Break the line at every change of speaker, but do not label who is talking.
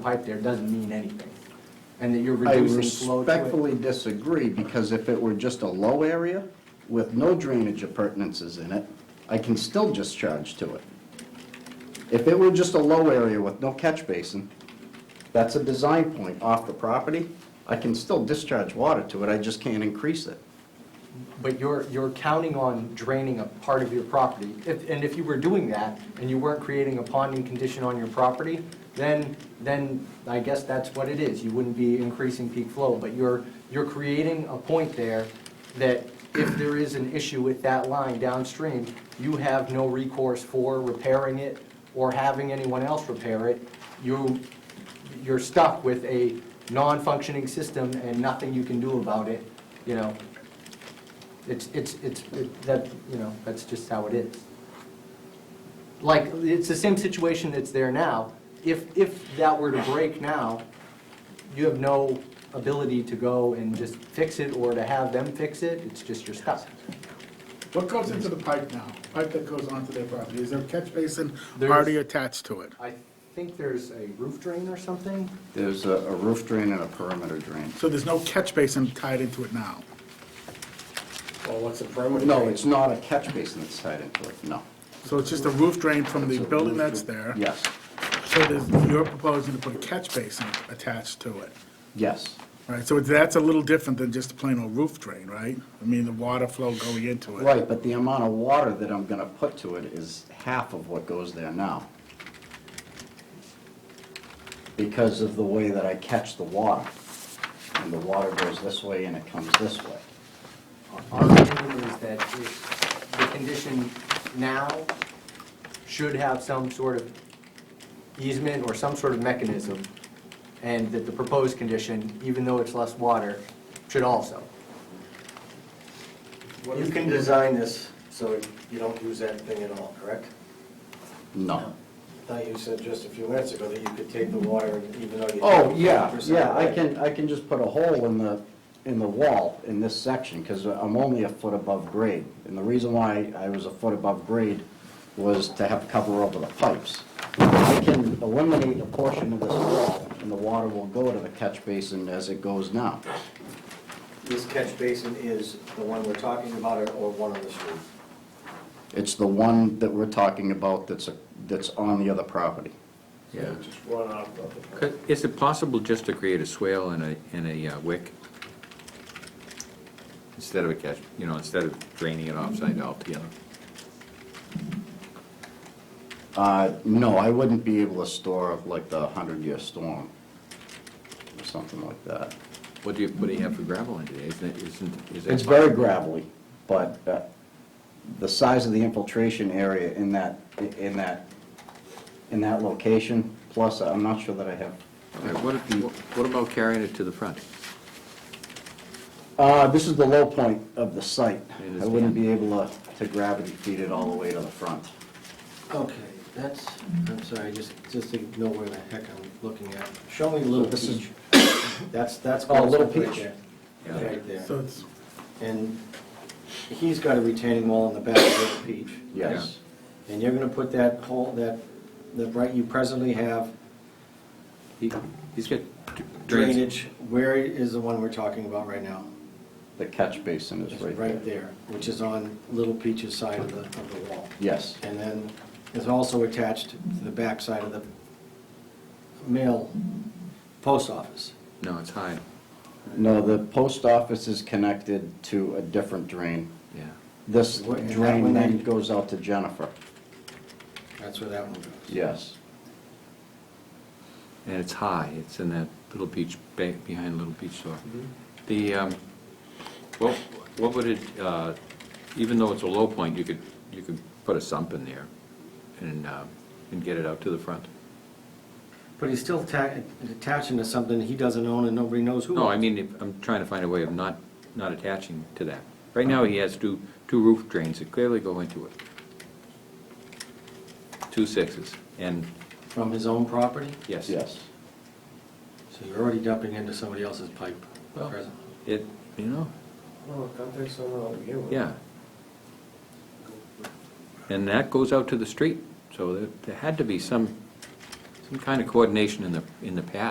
pipe there doesn't mean anything, and that you're
I
reducing flow to it.
respectfully disagree, because if it were just a low area with no drainage appurtenances in it, I can still just charge to it. If it were just a low area with no catch basin, that's a design point off the property, I can still discharge water to it, I just can't increase it.
But you're, you're counting on draining a part of your property. If- And if you were doing that, and you weren't creating a ponding condition on your property, then, then I guess that's what it is. You wouldn't be increasing peak flow, but you're, you're creating a point there that if there is an issue with that line downstream, you have no recourse for repairing it or having anyone else repair it. You, you're stuck with a non-functioning system and nothing you can do about it, you know? It's, it's, it's, it- that, you know, that's just how it is. Like, it's the same situation that's there now. If, if that were to break now, you have no ability to go and just fix it or to have them fix it, it's just you're stuck.
What goes into the pipe now? Pipe that goes onto their property? Is there a catch basin
There's-
already attached to it?
I think there's a roof drain or something?
There's a a roof drain and a perimeter drain.
So there's no catch basin tied into it now?
Well, what's the perimeter?
No,
drain?
it's not a catch basin that's tied into it, no.
So it's just a roof drain from the
It's a
building
roof
that's
drain.
there?
Yes,
So there's, you're proposing to put a catch basin attached to it,
yes.
right? So it's- that's a little different than just a plain old roof drain, right? I mean, the water flow going into it.
Right, but the amount of water that I'm gonna put to it is half of what goes there now. Because of the way that I catch the water. And the water goes this way and it comes this way.
Our opinion is that if the condition now should have some sort of easement or some sort of mechanism, and that the proposed condition, even though it's less water, should also.
You can design this so you don't use that thing at all, correct?
No.
Thought you said just a few minutes ago that you could take the water and even though you.
Oh, yeah, yeah, I can, I can just put a hole in the, in the wall in this section, because I'm only a foot above grade. And the reason why I was a foot above grade was to have cover over the pipes. I can eliminate a portion of this wall, and the water will go to the catch basin as it goes now.
This catch basin is the one we're talking about or or one on the street?
It's the one that we're talking about that's, a- that's on the other property.
Yeah.
Just one off of the.
Could- Is it possible just to create a swale and a, and a uh, wick? Instead of a catch, you know, instead of draining it offside altogether?
Uh, no, I wouldn't be able to store like the hundred-year storm, or something like that.
What do you, what do you have for gravel in today? Isn't it, isn't, is that?
It's very gravelly, but uh, the size of the infiltration area in that, in that, in that location, plus, I'm not sure that I have,
All right, What, what about carrying it to the front?
uh, this is the low point of the site.
I
I
understand.
wouldn't be able to to gravity feed it all the way to the front.
Okay, that's, I'm sorry, just, just to know where the heck I'm looking at. Show me Little
This is-
Peach. That's, that's.
Oh, Little
Goldsmith
Peach.
right there.
Yeah.
Right there.
So it's,
And he's got a retaining wall in the back of Little Peach.
Yes.
And you're gonna put that whole, that, the right you presently have
He- He's got drains.
drainage, where is the one we're talking about right now?
The catch basin is
It's
right there.
right there, which is on Little Peach's side of the, of the wall.
Yes,
And then it's also attached to the back side of the mail post office.
No, it's high,
no, the post office is connected to a different drain.
yeah.
This
What- and that
drain
one
then
then-
goes out to Jennifer,
That's where that one goes.
yes.
And it's high, it's in that little beach, ba- behind Little Beach Store. The, um, what, what would it, uh, even though it's a low point, you could, you could put a sump in there and, uh, and get it out to the front?
But he's still ta- attaching to something he doesn't own and nobody knows who.
No, I
owns.
mean, if- I'm trying to find a way of not, not attaching to that. Right now, he has two, two roof drains that clearly go into it. Two sixes, and,
From his own property?
yes.
Yes.
So you're already dumping into somebody else's pipe
Well,
presently.
It, you know,
Well, don't think so, no, you.
yeah. And that goes out to the street, so there, there had to be some, some kind of coordination in the, in the past